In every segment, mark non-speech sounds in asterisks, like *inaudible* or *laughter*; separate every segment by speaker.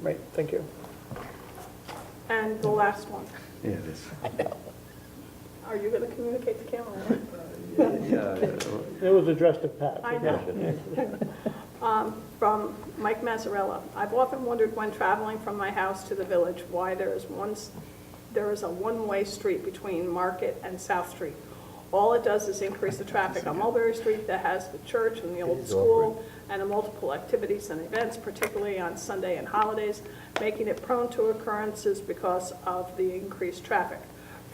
Speaker 1: Right, thank you.
Speaker 2: And the last one,
Speaker 3: Yeah, it is.
Speaker 2: are you going to communicate to Cameron?
Speaker 3: Yeah,
Speaker 4: It was addressed to Pat.
Speaker 2: I know. Um, From Mike Mazzarella. I've often wondered when traveling from my house to the village why there is one, s- there is a one-way street between Market and South Street. All it does is increase the traffic on Mulberry Street that has the church and the old school and the multiple activities and events, particularly on Sunday and holidays, making it prone to occurrences because of the increased traffic.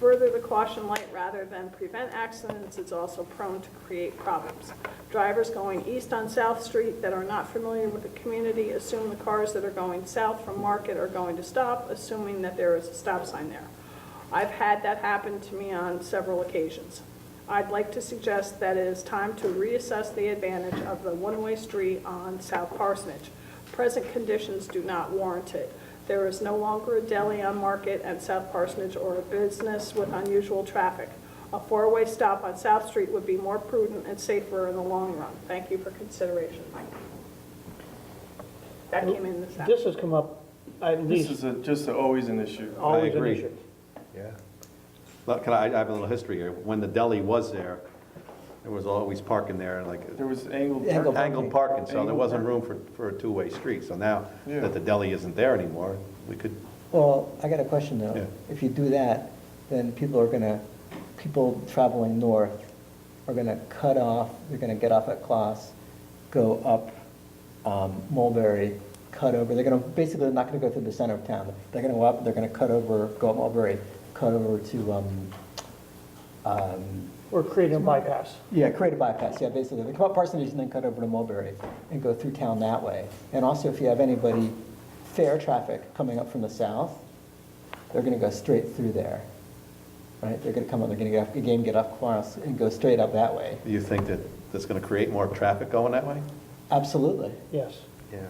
Speaker 2: Further, the caution light, rather than prevent accidents, is also prone to create problems. Drivers going east on South Street that are not familiar with the community assume the cars that are going south from Market are going to stop, assuming that there is a stop sign there. I've had that happen to me on several occasions. I'd like to suggest that it is time to reassess the advantage of the one-way street on South Parsonage. Present conditions do not warrant it. There is no longer a deli on Market and South Parsonage or a business with unusual traffic. A four-way stop on South Street would be more prudent and safer in the long run. Thank you for consideration, Mike. That came in this
Speaker 4: This
Speaker 2: afternoon.
Speaker 4: has come up at
Speaker 5: This
Speaker 4: least,
Speaker 5: is a- just a- always an issue.
Speaker 4: always an
Speaker 3: agree.
Speaker 4: issue.
Speaker 3: Look, can I, I have a little history here. When the deli was there, there was always parking there, like
Speaker 5: There was angled.
Speaker 6: Angled.
Speaker 3: angled parking, so there
Speaker 5: Angled
Speaker 3: wasn't room for, for a two-way street. So now
Speaker 5: Yeah.
Speaker 3: that the deli isn't there anymore, we could,
Speaker 6: Well, I got a question
Speaker 3: Yeah.
Speaker 6: though. If you do that, then people are gonna, people traveling north are gonna cut off, they're gonna get off at Class, go up um, Mulberry, cut over, they're gonna, basically, they're not gonna go through the center of town. They're gonna go up, they're gonna cut over, go up Mulberry, cut over to, um, um,
Speaker 4: We're creating a bypass.
Speaker 6: yeah, create a bypass, yeah, basically. They come up Parsonage and then cut over to Mulberry and go through town that way. And also, if you have anybody, fair traffic coming up from the south, they're gonna go straight through there, right? They're gonna come up, they're gonna get off, again, get off Quarles and go straight up that way.
Speaker 3: do you think that that's going to create more traffic going that way?
Speaker 6: Absolutely.
Speaker 4: Yes.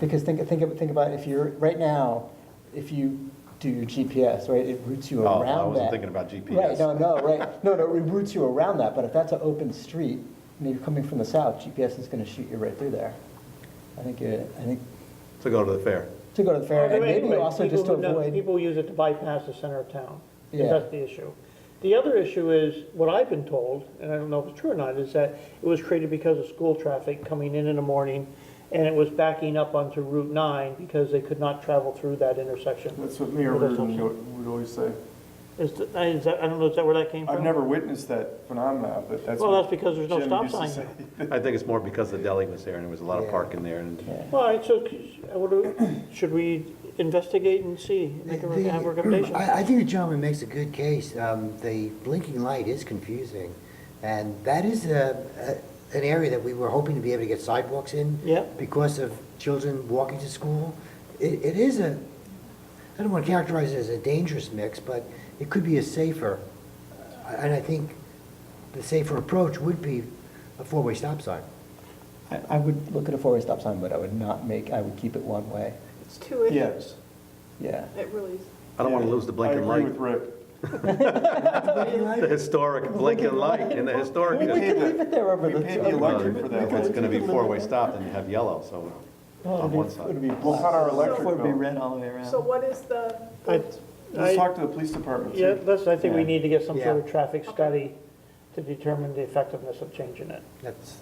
Speaker 6: Because think, think, of- think about if you're, right now, if you do your GPS, right, it routes you
Speaker 3: Oh, I
Speaker 6: around that.
Speaker 3: wasn't thinking about
Speaker 6: Right,
Speaker 3: GPS.
Speaker 6: no, no, right, no, no, it routes you around that, but if that's an open street, and you're coming from the south, GPS is gonna shoot you right through there. I think, it- I think,
Speaker 3: To go to the fair?
Speaker 6: to go to the fair, and maybe
Speaker 4: Anyway,
Speaker 6: also just to
Speaker 4: people who know-
Speaker 6: avoid,
Speaker 4: People use it to bypass the center of town.
Speaker 6: Yeah.
Speaker 4: That's the issue. The other issue is, what I've been told, and I don't know if it's true or not, is that it was created because of school traffic coming in in the morning, and it was backing up onto Route 9 because they could not travel through that intersection.
Speaker 5: That's what Mayor
Speaker 4: Well, that's
Speaker 5: Reardon
Speaker 4: also-
Speaker 5: would would always say.
Speaker 4: Is, th- is that, I don't know, is that where that came from?
Speaker 5: I've never witnessed that phenomenon, but that's.
Speaker 4: Well,
Speaker 5: what
Speaker 4: that's because there's no
Speaker 5: Jim
Speaker 4: stop
Speaker 5: used to
Speaker 4: sign
Speaker 5: say.
Speaker 3: I think it's more because the deli was there and there was a lot of
Speaker 6: Yeah.
Speaker 3: parking there and
Speaker 4: All right, so c- I would- should we investigate and see, make a,
Speaker 7: The-
Speaker 4: have a recommendation?
Speaker 7: I, I think the gentleman makes a good case. Um, The blinking light is confusing, and that is a, a- an area that we were hoping to be able to get sidewalks in.
Speaker 4: Yep.
Speaker 7: Because of children walking to school. It, it is a, I don't want to characterize it as a dangerous mix, but it could be a safer, uh, and I think the safer approach would be a four-way stop sign.
Speaker 6: I I would look at a four-way stop sign, but I would not make, I would keep it one way,
Speaker 2: It's too, it
Speaker 5: *laughs* Yes.
Speaker 6: yeah.
Speaker 2: really is.
Speaker 3: I don't want to lose the blinking
Speaker 5: I
Speaker 3: light.
Speaker 5: agree with Rick.
Speaker 3: The historic blinking light in the historic.
Speaker 6: We
Speaker 3: district.
Speaker 6: could leave it there over
Speaker 5: We
Speaker 6: the.
Speaker 5: paid
Speaker 6: over
Speaker 5: the electric for that.
Speaker 3: It's gonna be four-way stop and you have yellow, so
Speaker 6: Oh,
Speaker 3: on one
Speaker 6: It'd
Speaker 3: side.
Speaker 6: be
Speaker 5: We'll cut our
Speaker 6: black,
Speaker 5: electric
Speaker 6: it'd be
Speaker 5: bill.
Speaker 6: red all the way around.
Speaker 2: So what is the,
Speaker 4: I-
Speaker 5: Let's talk to the police department
Speaker 4: Yeah,
Speaker 5: too.
Speaker 4: that's, I think we need to get some sort of
Speaker 7: Yeah.
Speaker 4: traffic study to determine the effectiveness of changing it,
Speaker 7: That's,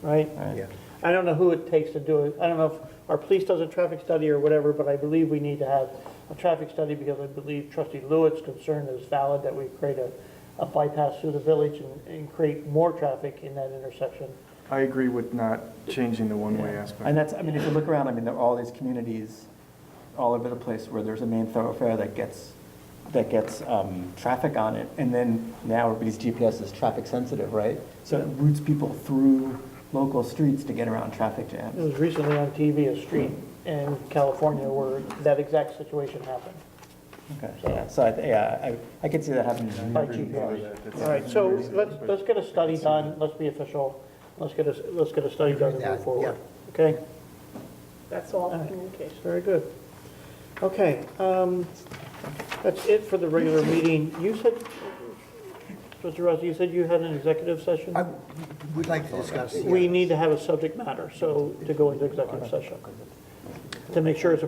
Speaker 4: right?
Speaker 7: yeah.
Speaker 4: I don't know who it takes to do it, I don't know if our police does a traffic study or whatever, but I believe we need to have a traffic study because I believe trustee Lewitt's concern is valid that we create a, a bypass through the village and, and create more traffic in that intersection.
Speaker 5: I agree with not changing the one-way
Speaker 6: And
Speaker 5: aspect.
Speaker 6: that's, I mean, if you look around, I mean, there are all these communities all over the place where there's a main thoroughfare that gets, that gets um, traffic on it. And then now everybody's GPS is traffic sensitive, right? So it routes people through local streets to get around traffic
Speaker 4: It
Speaker 6: jams.
Speaker 4: was recently on TV, a street in California where that exact situation happened.
Speaker 6: Okay, yeah, so I, yeah, I, I could see that happening.
Speaker 4: By GPS. All right, so let's, let's get a study done, let's be official, let's get a, let's get a study done and
Speaker 7: Yeah,
Speaker 4: move
Speaker 7: yeah.
Speaker 4: forward. Okay,
Speaker 2: that's all
Speaker 4: right.
Speaker 2: communication.
Speaker 4: very good. Okay, um, that's it for the regular meeting. You said, Mr. Rossi, you said you had an executive session?
Speaker 7: I w- would like to discuss.
Speaker 4: We need to have a subject matter, so to go into executive session, to make sure it's